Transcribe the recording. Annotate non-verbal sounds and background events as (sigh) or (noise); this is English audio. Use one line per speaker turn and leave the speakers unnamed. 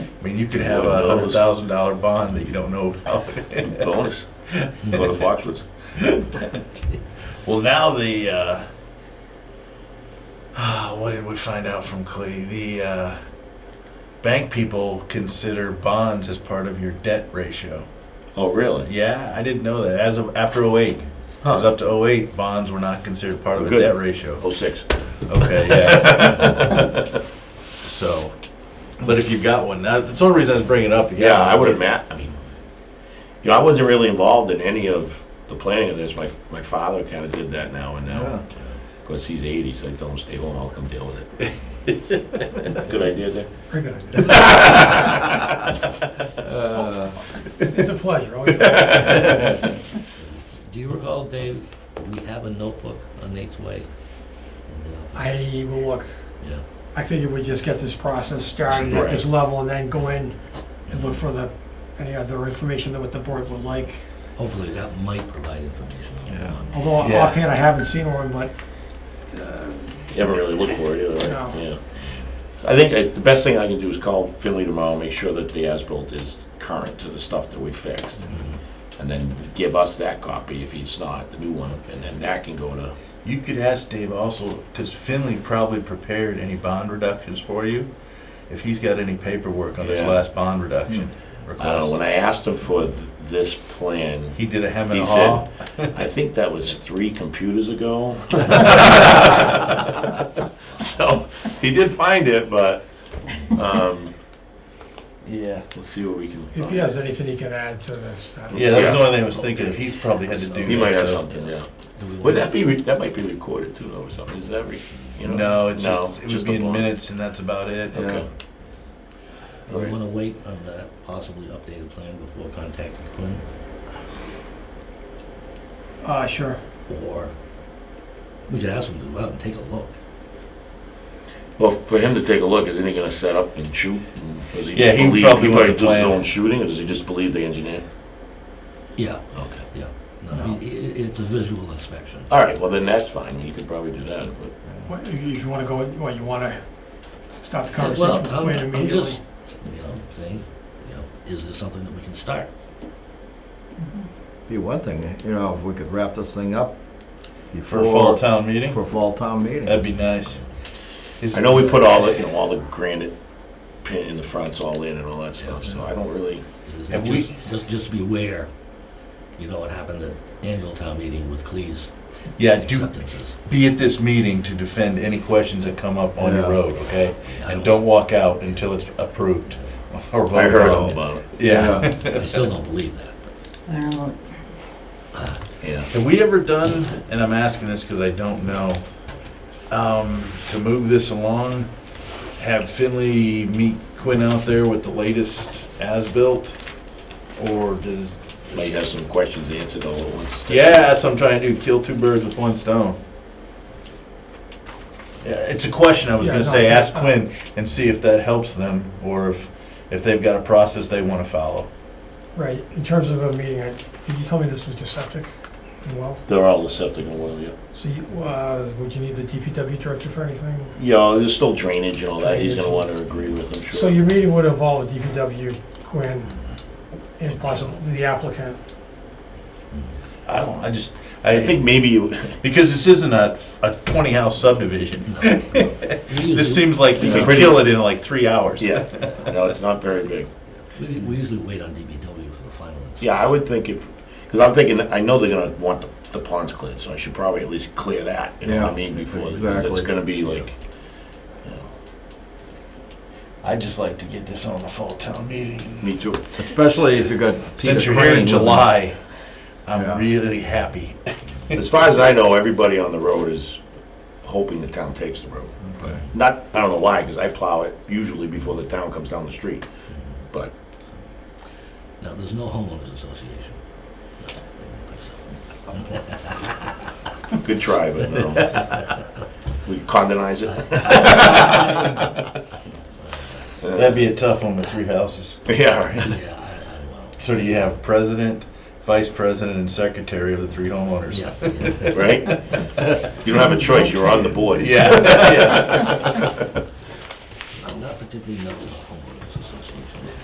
I mean, you could have a hundred thousand dollar bond that you don't know
Oh.
about.
bonus, go to Foxwoods.
Well, now the, uh, (sighs)
uh,
what did we find out from Clay? The, uh, bank people consider bonds as part of your debt ratio.
Oh, really?
Yeah, I didn't know that. As of, after oh-eight, it was
Huh.
up to oh-eight, bonds were not considered part of a
Good.
debt ratio.
Oh, six.
Okay, yeah.
(laughs)
So, but if you've got one, now, that's the only reason I was bringing it up. again.
Yeah, I would have met, I mean, you know, I wasn't really involved in any of the planning of this. My, my father kind of did that now and now.
Yeah.
Of course, he's eighty, so I tell him, stay home, I'll come deal with it. (laughs) Good idea there.
Very good
(laughs)
idea. Uh, It's a pleasure, Oh, always. a pleasure.
Do you recall, Dave, we have a notebook on Nate's way? And, uh,
I will look,
Yeah,
I figured we'd just get this process started at this level and then go in and look for the, any other information that what the board would like.
hopefully that might provide information on
Yeah.
on-
Although
Yeah.
offhand, I haven't seen one, but uh,
You haven't really looked for it either, right?
No.
Yeah. I think that the best thing I can do is call Finley tomorrow, make sure that the as-built is current to the stuff that we fixed.
Mm-hmm.
And then give us that copy if it's not, the new one, and then that can go to,
You could ask Dave also, because Finley probably prepared any bond reductions for you, if he's got any paperwork on his
Yeah. Hmm.
last bond reduction
I don't know, Uh, when
request.
I asked him for th- this plan,
He did a hem and
He
a
said-
haw. (laughs)
I think that was three computers ago. So, he did find it, but, um,
Yeah.
let's see what we can.
if he has anything he can add to this. uh, that'd be-
Yeah, that was
Yeah.
the only thing I was thinking, if he's probably had to do.
He might
that,
have
so-
something, yeah.
Do we
Would
want
that be, re- that might be recorded too, though, or something, is that, re- you know?
No, it's just, it would
just
be
a
in
bond.
minutes and that's about it.
Okay.
do we want to wait on that possibly updated plan before contacting Quinn?
Uh, sure.
Or we could ask him to go out and take a look.
Well, for him to take a look, isn't he gonna set up and shoot? And Does he
Yeah,
just
he
believe,
probably
he
went
probably
to
does his
plan.
own shooting, or does he just believe the engineer?
Yeah,
Okay.
no, i- i- it's a visual inspection.
All right, well, then that's fine, you could probably do that, but,
What, if you wanna go, what, you wanna stop the
Well,
conversation with
I'm-
Quinn
I'm
immediately?
just, You know, saying, you know, is this something that we can start?
Be one thing, you know, if we could wrap this thing up
For a fall
before,
town meeting,
for fall town
that'd
meeting.
be nice. Is-
I know we put all the, you know, all the granite pin in the fronts all in and all that stuff, so I don't really,
Is
Have
it
we-
just, just, just be aware, you know, what happened at annual town meeting with Cleese
Yeah, do,
acceptances.
be at this meeting to defend any questions that come up on your
Yeah.
road, okay?
I
And don't walk out until it's approved. (laughs) or
I
voted
heard
on.
all about it,
Yeah.
I still don't believe that, but,
I don't know.
yeah.
Have we ever done, and I'm asking this because I don't know, um, to move this along, have Finley meet Quinn out there with the latest as-built? Or does,
Might have some questions answered all at once.
yeah, that's what I'm trying to do, kill two birds with one stone. Yeah, It's a question I was
Yeah,
gonna
no,
say, ask
uh,
Quinn and see if that helps them, or if, if they've got a process they wanna follow.
Right, in terms of a meeting, I, did you tell me this was just septic and well?
They're all septic and well, yeah.
So you, uh, would you need the DPW director for anything?
Yeah, there's still drainage and all that, he's gonna wanna agree with, I'm
So
sure.
your meeting would involve DPW, Quinn, and possibly the applicant.
I don't, I just,
I think maybe you, (laughs)
because this isn't a, a twenty-house subdivision.
we
This
usually,
seems like you
Yeah.
can kill it in like three hours.
yeah, no, it's not very big.
we we usually wait on DBW for the final. inspection.
Yeah, I would think if, because I'm thinking, I know they're gonna want the- the ponds cleared, so I should probably at least clear that, you know what I
Yeah,
mean, before, because it's
exactly.
gonna be like,
I'd just like to get this on a fall town meeting.
me too.
Especially if you got Peter
Since you're here
Crane
in
with-
July, I'm
Yeah.
really happy.
As far as I know, everybody on the road is hoping the town takes the road.
Okay.
Not, I don't know why, because I plow it usually before the town comes down the street, but,
Now, there's no homeowners association. No, I don't think so.
good try, but no. We condonize it, (laughs)
That'd be a tough one with three houses.
yeah, right.
Yeah, I, I don't know.
So do you have president, vice president, and secretary of the three homeowners?
Yeah, yeah.
right? You don't have a choice, you're on the board.
Yeah.
I'm not particularly knowledgeable about homeowners